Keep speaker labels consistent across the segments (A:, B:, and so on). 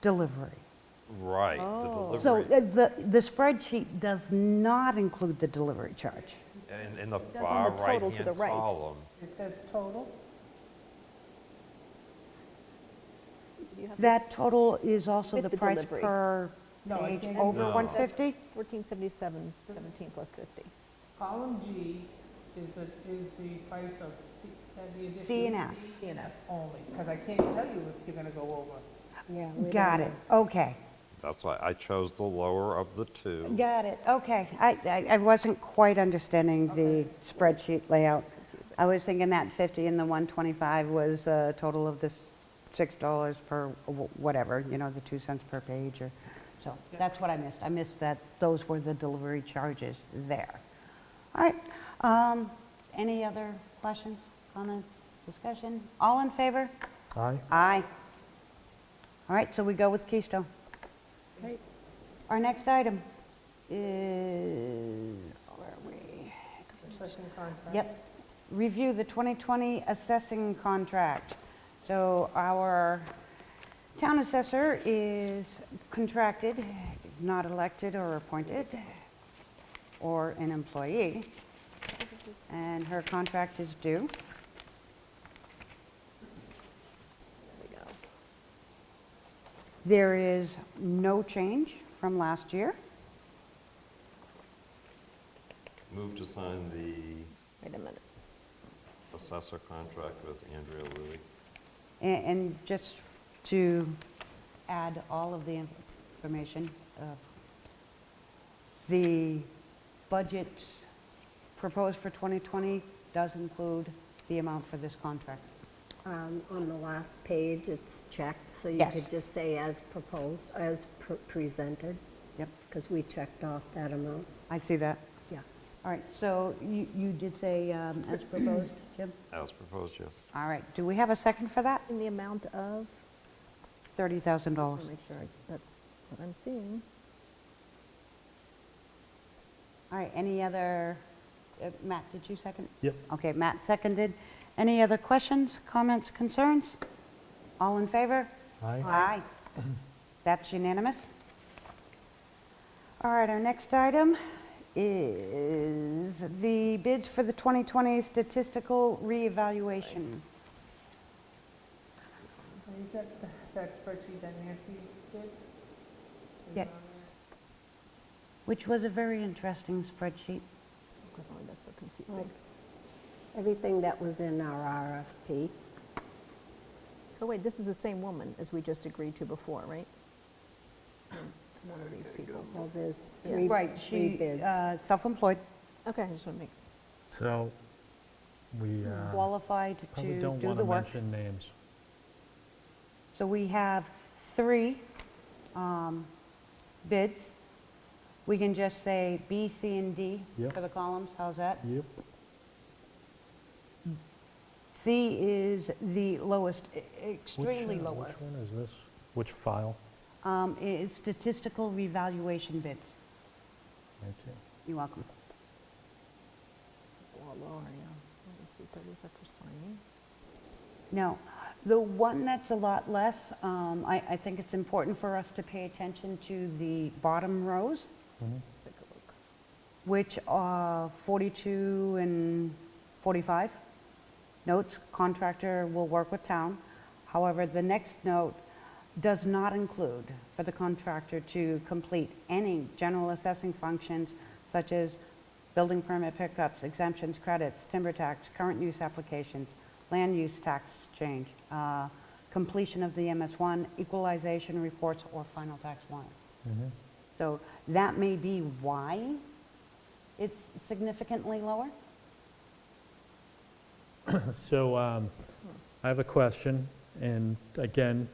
A: delivery.
B: Right, the
C: Oh.
A: So
B: delivery,
A: uh, the, the spreadsheet does not include the delivery charge.
B: in, in the
C: It does on
B: far
C: the total to the
B: right-hand
C: right.
B: column.
D: It says total?
C: Do you have that?
A: That total is also
C: With
A: the
C: the
A: price
C: delivery.
A: per
D: No, I
A: page
D: think
A: over
B: No.
A: 150?
C: 1477, 17 plus 50.
D: Column G is the, is the price of C, that the addition.
A: C and F.
D: C and F only, because I can't tell you if you're gonna go over.
E: Yeah. we
A: Got
E: don't
A: it, okay.
B: That's why I chose the lower of the two.
A: Got it, okay. I, I- I wasn't quite understanding the spreadsheet layout. I was thinking that 50 and the 125 was a total of this $6 per wh- whatever, you know, the 2 cents per page or, so that's what I missed. I missed that those were the delivery charges there. All right, um, any other questions, comments, discussion? All in favor?
F: Aye.
A: Aye. All right, so we go with Keystone.
E: Right.
A: Our next item is, where are we?
D: Concession contract.
A: Yep, review the 2020 assessing contract. So our town assessor is contracted, not elected or appointed, or an employee, and her contract is due.
C: There we go.
A: There is no change from last year.
B: Move to sign the
C: Wait a minute.
B: assessor contract with Andrea Louie.
A: A- And just to add all of the information, uh, the budget proposed for 2020 does include the amount for this contract.
E: Um, On the last page, it's checked, so you
A: Yes.
E: could just say as proposed, as pr- presented,
A: Yep,
E: because we checked off that amount.
A: I see that.
E: Yeah.
A: All right, so you you did say um, as proposed, Jim?
B: As proposed, yes.
A: All right, do we have a second for that?
C: In the amount of,
A: $30,000.
C: just want to make sure I- that's what I'm seeing.
A: All right, any other, uh, Matt, did you second?
F: Yep.
A: Okay, Matt seconded. Any other questions, comments, concerns? All in favor?
F: Aye.
A: Aye. That's unanimous. All right, our next item is the bids for the 2020 statistical reevaluation.
D: So you got th- that spreadsheet that Nancy did? Is
A: Yeah.
D: it on there?
A: Which was a very interesting spreadsheet.
C: Oh, God, That's so confusing.
E: That's Everything that was in our RFP,
C: So wait, this is the same woman as we just agreed to before, right? Hmm. One of these people.
E: well, there's
C: Yeah.
E: three
A: Right,
E: three
A: she,
E: bids.
A: uh, self-employed,
C: Okay, I just want to make,
F: So, we uh,
A: qualified
F: probably
A: Mm, to
F: don't
A: do
F: want
A: the
F: to
A: work.
F: mention names.
A: So we have three um, bids. We can just say B, C, and D
F: Yep.
A: for the columns, how's that?
F: Yep.
A: C is the lowest, e-
F: Which,
A: extremely
F: uh,
A: lower.
F: Which one is this? Which file?
A: Um, i- It's statistical revaluation bids.
F: Right here.
A: You're welcome.
C: well, Laura, yeah. Let's see, 30 is up for signing.
A: No, the one that's a lot less, um, I I think it's important for us to pay attention to the bottom rows,
F: Mm-hmm.
C: Take a look.
A: which are 42 and 45. Notes, contractor will work with town. However, the next note does not include for the contractor to complete any general assessing functions such as building permit pickups, exemptions, credits, timber tax, current use applications, land use tax change, uh, completion of the MS1, equalization reports, or final tax warrant.
F: Mm-hmm.
A: So that may be why it's significantly lower?
F: So um,
A: Hmm.
F: I have a question, and again,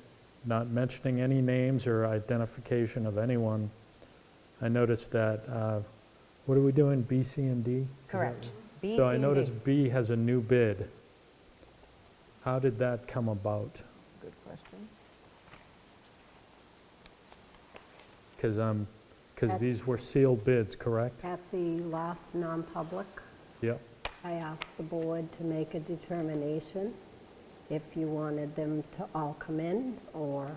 F: not mentioning any names or identification of anyone. I noticed that, uh, what are we doing, B, C, and D? Is that-
A: Correct. B,
F: So I
A: C, and D.
F: noticed B has a new bid. How did that come about?
C: Good question.
F: Because um, because
E: That-
F: these were sealed bids, correct?
E: At the last non-public,
F: Yep.
E: I asked the board to make a determination if you wanted them to all come in or